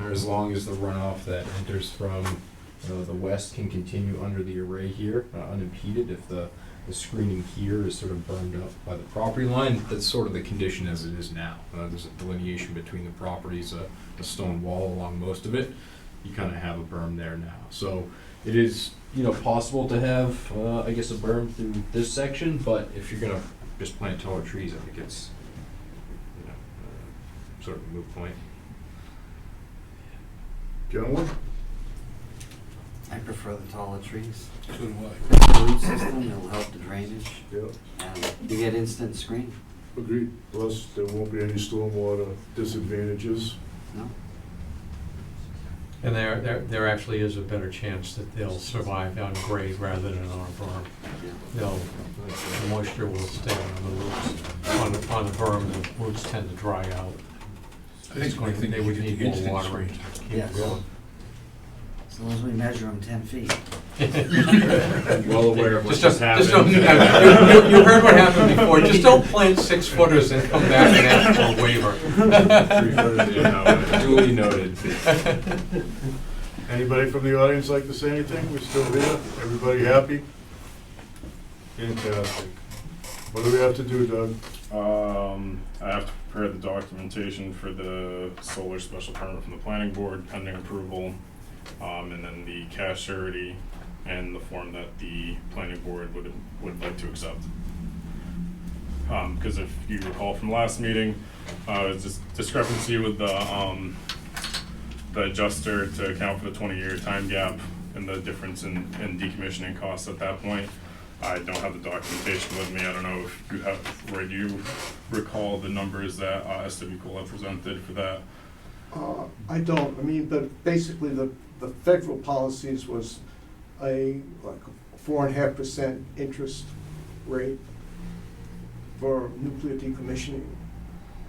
or as long as the runoff that enters from, you know, the west can continue under the array here, uh, unimpeded, if the, the screening here is sort of burned up by the property line, that's sort of the condition as it is now. Uh, there's a delineation between the properties, a, a stone wall along most of it, you kind of have a berm there now. So it is, you know, possible to have, uh, I guess, a berm through this section, but if you're gonna just plant taller trees, I think it's, you know, uh, sort of a moot point. Gentlemen? I prefer the taller trees. So do I. The root system, it'll help the drainage, Yep. and you get instant screen, Agreed. Plus, there won't be any stormwater disadvantages. no? And there, there, there actually is a better chance that they'll survive on grade rather than on a berm. Yeah. They'll, the moisture will stay on the roots, on the, on the berm, the roots tend to dry out. I think, I think They would need more watering to keep it Yes. going. As long as we measure them ten feet. Well aware of what Just just don't- just happened. don't- you- you- You heard what happened before, just don't plant six footers and come back and ask for a waiver. Duly noted. Anybody from the audience like to say anything? We're still here. Everybody happy? Fantastic. What do we have to do, Doug? Um, I have to prepare the documentation for the solar special permit from the planning board pending approval. Um, and then the cash surety and the form that the planning board would, would like to accept. Um, cause if you recall from last meeting, uh, it was just discrepancy with the, um, the adjuster to account for the twenty-year time gap and the difference in, in decommissioning costs at that point. I don't have the documentation with me, I don't know if you have, or you recall the numbers that uh, SW Cole had presented for that? Uh, I don't, I mean, but basically, the, the federal policies was a, like, four and a half percent interest rate for nuclear decommissioning,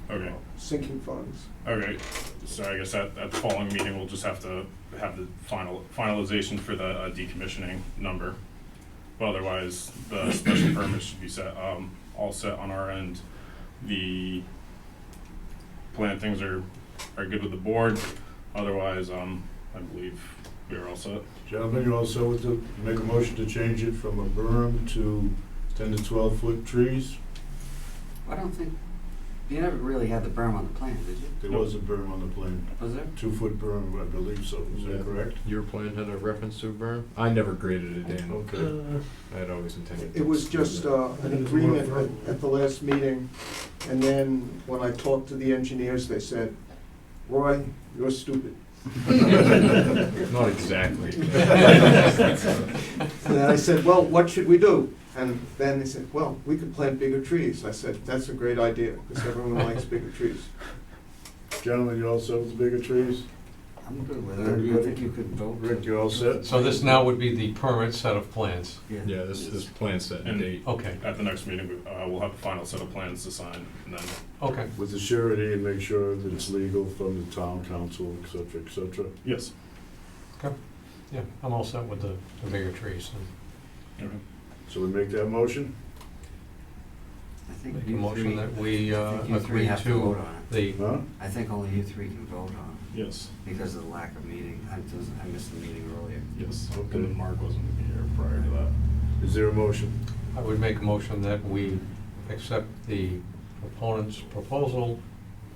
Okay, sinking funds. okay, so I guess at, at the following meeting, we'll just have to have the final, finalization for the uh, decommissioning number. But otherwise, the special permit should be set, um, all set on our end. The plantings are, are good with the board, otherwise, um, I believe we are all set. Gentlemen, you also would to make a motion to change it from a berm to ten to twelve foot trees? I don't think, you never really had the berm on the plan, did you? There was a berm on the plan, Was there? two foot berm, I believe so. Is Yeah. that correct? Your plan had a reference to a berm? I never graded it in. Okay. I'd always intended. to It was do just that. uh, an agreement at- at the last meeting, and then when I talked to the engineers, they said, Roy, you're stupid. Not exactly. And then I said, well, what should we do? And then they said, well, we could plant bigger trees. I said, that's a great idea, because everyone likes bigger trees. Gentlemen, you all set with the bigger trees? I'm good with it, I think you could vote. Rick, you all set? So this now would be the permit set of plans, Yeah, this, this plan set and And- date. okay, At the next meeting, we- uh, we'll have a final set of plans to sign, and then okay. With the surety and make sure that it's legal from the town council, et cetera, et cetera. Yes. Yeah, I'm all set with the, the bigger trees. So we make that motion? I and think Make a you motion three, that we I uh, think you three agree have to vote to on it. the, Huh? I think only you three can vote on Yes, it, because of the lack of meeting, I just, I missed the meeting earlier. yes. And Okay. then Mark wasn't here prior to that. Is there a motion? I would make a motion that we accept the proponent's proposal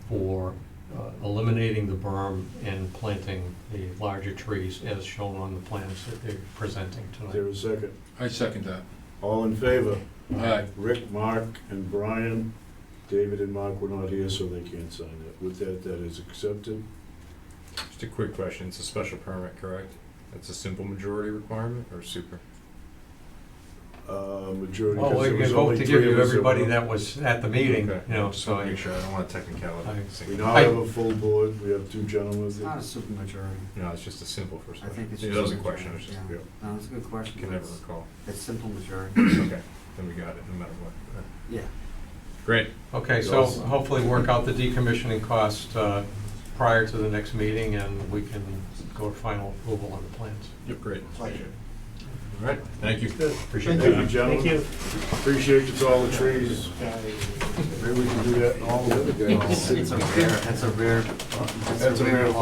for uh, eliminating the berm and planting the larger trees as shown on the plans that they're presenting Is tonight. there a second? I second that. All in favor? Aye. Rick, Mark, and Brian. David and Mark were not here, so they can't sign it. With that, that is accepted. Just a quick question. It's a special permit, correct? That's a simple majority requirement or super? Uh, majority, Oh, because we're there going was to only vote to three give of you us that everybody were- that was at the meeting, Okay. you know, Just so wanna I, make sure. I don't want a technicality. I- Sing- We now I- have a full board. We have two gentlemen. It's not a that- super majority. No, it's just a simple first. I think it's It just a was a question. I was just, majority, yeah, No, it's a good question, can but never it's, recall. it's simple majority, Okay, then we got it, no matter what. yeah. Great. okay, so hopefully work out the decommissioning cost uh, prior to the next meeting and we can go to final approval on the plans. Yep, great. Pleasure. All right, thank you. Appreciate Thank that. you, gentlemen. Appreciate you to all the trees. Maybe we can do that in all of it. It's a rare, that's a rare, that's a That's a rare rare law.